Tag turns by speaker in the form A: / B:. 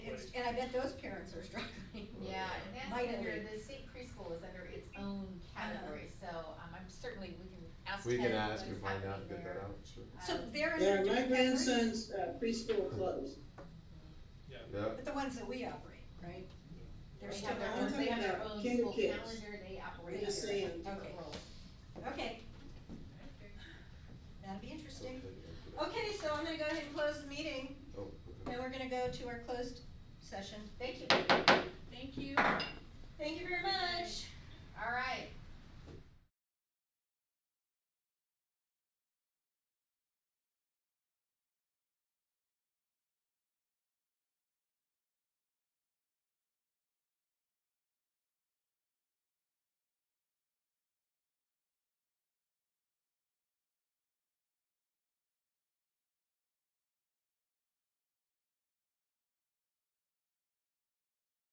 A: And I bet those parents are struggling.
B: Yeah, and that's
A: Mightily.
B: under, the state preschool is under its own category, so, um, I'm certainly, we can ask
C: We
B: Ted
C: can ask
B: what
C: and
B: is
C: find out,
B: happening
C: get that
B: there.
C: out, sure.
A: So
B: Um,
A: they're in. a
D: Yeah, my
A: different category,
D: grandson's uh, preschool closed.
E: Yeah.
C: Yeah,
A: But the ones that we operate, right? They're
B: They
A: still
B: have their
D: I'm
B: own, they
D: talking
B: have their
D: about
B: own
D: kinder
B: school
D: kids.
B: calendar, they operate
D: Just
B: their own
D: saying.
B: different
A: Okay.
B: roles.
A: Okay. That'll be interesting.
C: okay, okay.
A: Okay, so I'm gonna go ahead and close the meeting,
C: Oh, okay.
A: and we're gonna go to our closed session.
B: Thank you,
F: Thank you.
A: Thank you very much.
B: all right,